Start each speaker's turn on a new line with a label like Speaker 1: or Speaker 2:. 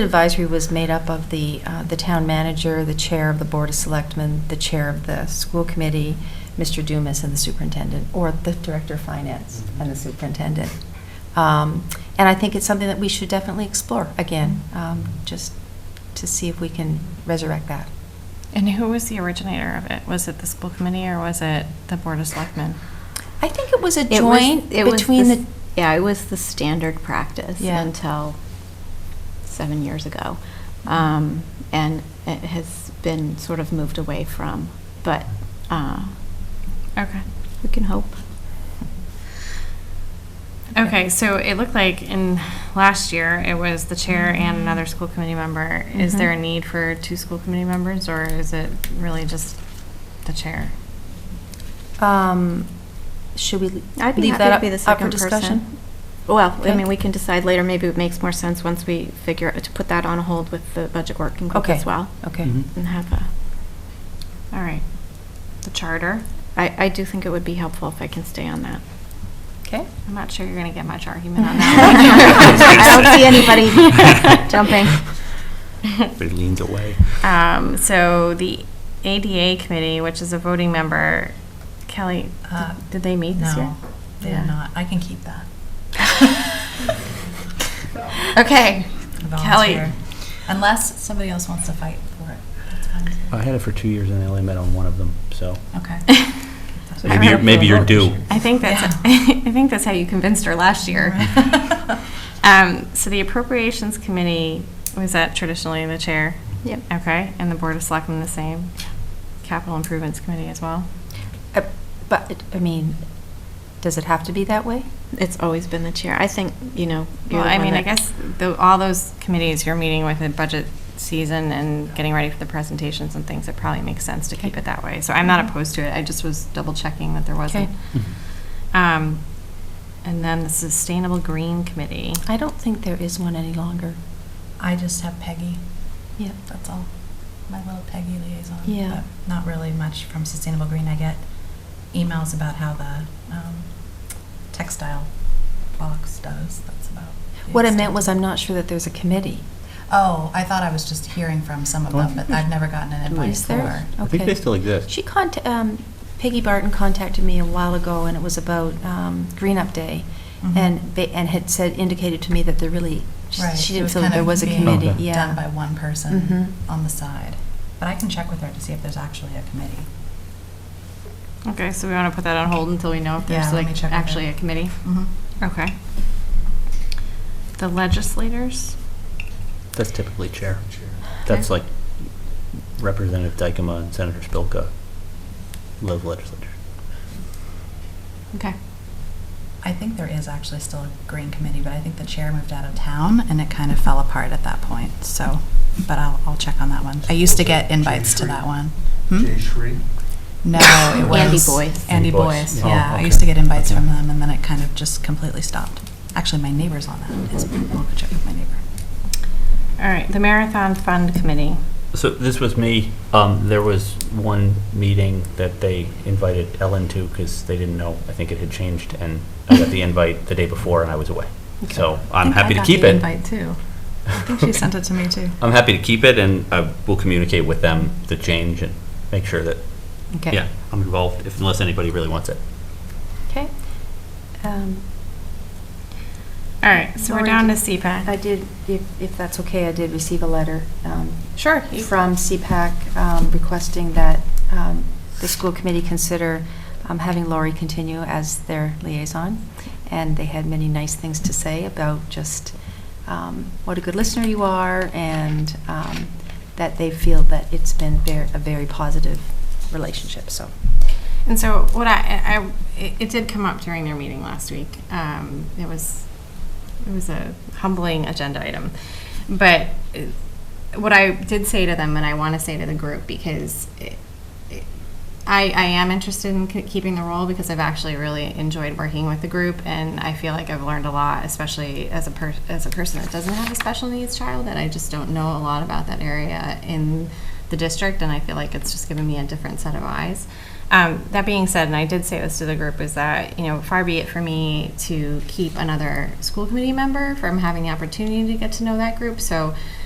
Speaker 1: Advisory was made up of the, uh, the town manager, the chair of the Board of Selectmen, the chair of the school committee, Mr. Dumas and the superintendent, or the director of finance and the superintendent. Um, And I think it's something that we should definitely explore again, um, just to see if we can resurrect that.
Speaker 2: And who was the originator of it? Was it the school committee or was it the Board of Selectmen?
Speaker 1: I think it was a
Speaker 3: It was-
Speaker 1: joint
Speaker 3: it was
Speaker 1: between
Speaker 3: s-
Speaker 1: the,
Speaker 3: Yeah, it was the standard practice
Speaker 1: Yeah.
Speaker 3: until seven years ago. Um, and it has been sort of moved away from, but uh,
Speaker 2: Okay.
Speaker 3: we can hope.
Speaker 2: Okay, so it looked like in last year, it was the chair and another school committee member. Is
Speaker 3: Mhm.
Speaker 2: there a need for two school committee members or is it really just the chair?
Speaker 1: um, should we
Speaker 3: I'd be
Speaker 1: leave
Speaker 3: happy to
Speaker 1: that
Speaker 3: be the
Speaker 1: up- up for
Speaker 3: second
Speaker 1: discussion?
Speaker 3: person. Well, I
Speaker 1: Okay.
Speaker 3: mean, we can decide later. Maybe it makes more sense once we figure out to put that on hold with the budget working group
Speaker 1: Okay.
Speaker 3: as well.
Speaker 1: Okay.
Speaker 4: Mhm.
Speaker 3: And have a,
Speaker 2: All right. The charter?
Speaker 3: I, I do think it would be helpful if I can stay on that.
Speaker 1: Okay.
Speaker 2: I'm not sure you're going to get much argument on
Speaker 3: I
Speaker 2: that.
Speaker 3: don't see anybody jumping.
Speaker 4: They leaned away.
Speaker 2: Um, so the ADA committee, which is a voting member, Kelly, did-
Speaker 5: Uh,
Speaker 2: did they meet this year?
Speaker 5: No, they
Speaker 2: Yeah.
Speaker 5: did not. I can keep that.
Speaker 2: Okay. Kelly.
Speaker 5: Volunteer. Unless somebody else wants to fight for it. That's fine. too.
Speaker 4: I had it for two years and I only met on one of them, so.
Speaker 5: Okay.
Speaker 4: Maybe you're, maybe you're due.
Speaker 2: I think that's I think that's how you convinced her last year. Um, so the appropriations committee was that traditionally the chair,
Speaker 3: Yep.
Speaker 2: okay, and the board of selectmen the same. Capital improvements committee as well.
Speaker 1: Uh, But, I mean, does it have to be that way?
Speaker 3: It's always been the chair. I think, you know. you're
Speaker 2: Well,
Speaker 3: the
Speaker 2: I
Speaker 3: one
Speaker 2: mean, I
Speaker 3: that-
Speaker 2: guess the, all those committees you're meeting with in budget season and getting ready for the presentations and things, it probably makes sense to keep it that way. So I'm not opposed to it. I just was double checking that there wasn't. Um, and then the sustainable green committee.
Speaker 1: I don't think there is one any longer.
Speaker 5: I just have Peggy.
Speaker 1: Yeah.
Speaker 5: That's all. My little Peggy liaison.
Speaker 1: Yeah.
Speaker 5: but Not really much from Sustainable Green. I get emails about how the um, textile box does. That's about. the
Speaker 1: What I meant
Speaker 5: extent.
Speaker 1: was, I'm not sure that there's a committee.
Speaker 5: Oh, I thought I was just hearing from some of
Speaker 4: Oh, I
Speaker 5: them,
Speaker 4: think
Speaker 5: but I've never gotten an
Speaker 4: Wait,
Speaker 5: advice
Speaker 1: Is there?
Speaker 5: or.
Speaker 4: I think
Speaker 1: Okay.
Speaker 4: they still exist.
Speaker 1: She contact, um, Peggy Barton contacted me a while ago, and it was about, um, Green Up Day,
Speaker 5: Mhm.
Speaker 1: and, ba- and had said, indicated to me that there really, she-
Speaker 5: Right,
Speaker 1: she
Speaker 5: it
Speaker 1: didn't
Speaker 5: was
Speaker 1: feel that
Speaker 5: kind
Speaker 1: there
Speaker 5: of
Speaker 1: was a
Speaker 5: being
Speaker 1: committee,
Speaker 4: Okay.
Speaker 1: yeah.
Speaker 5: Done by one
Speaker 1: Mhm.
Speaker 5: person on the side. But I can check with her to see if there's actually a committee.
Speaker 2: Okay, so we want to put that on hold until we know if
Speaker 5: Yeah,
Speaker 2: there's
Speaker 5: let me
Speaker 2: like
Speaker 5: check with
Speaker 2: actually
Speaker 5: her.
Speaker 2: a committee.
Speaker 5: Mm-hmm.
Speaker 2: Okay. The legislators?
Speaker 4: That's typically chair. That's like Representative Dykema and Senator Spilka, live legislature.
Speaker 2: Okay.
Speaker 5: I think there is actually still a green committee, but I think the chair moved out of town and it kind of fell apart at that point, so, but I'll, I'll check on that one. I used to get invites to that one. Hmm?
Speaker 6: Jay Shree.
Speaker 5: No, it was.
Speaker 3: Andy Boyce.
Speaker 5: Andy
Speaker 4: Andy Boyce,
Speaker 5: Boyce,
Speaker 4: yeah.
Speaker 5: yeah.
Speaker 4: Oh,
Speaker 5: I
Speaker 4: okay.
Speaker 5: used to get invites
Speaker 4: Okay.
Speaker 5: from them and then it kind of just completely stopped. Actually, my neighbor's on that. His- I'll go check with my neighbor.
Speaker 2: All right, the Marathon Fund Committee.
Speaker 4: So this was me. Um, there was one meeting that they invited Ellen to because they didn't know. I think it had changed, and I got the invite the day before, and I was away. So I'm happy to keep it.
Speaker 5: invite too. I think she sent it to me too.
Speaker 4: I'm happy to keep it, and I will communicate with them the change and make sure that
Speaker 1: Okay.
Speaker 4: yeah I'm involved if unless anybody really wants it.
Speaker 1: Okay. Um,
Speaker 2: All right, so we're
Speaker 1: Lori,
Speaker 2: down to
Speaker 1: did- I
Speaker 2: CPAC.
Speaker 1: did, if, if that's okay, I did receive a letter, um,
Speaker 2: Sure. you-
Speaker 1: from CPAC um, requesting that um, the school committee consider um, having Lori continue as their liaison. And they had many nice things to say about just um, what a good listener you are and um, that they feel that it's been ver- a very positive relationship, so.
Speaker 2: And so what I, I, it- it did come up during their meeting last week. Um, It was, it was a humbling agenda item. But uh, what I did say to them, and I want to say to the group, because it- it- I, I am interested in k- keeping the role because I've actually really enjoyed working with the group, and I feel like I've learned a lot, especially as a per, as a person that doesn't have a special needs child, and I just don't know a lot about that area in the district, and I feel like it's just given me a different set of eyes. Um, that being said, and I did say this to the group, is that you know far be it for me to keep another school committee member from having the opportunity to get to know that group. So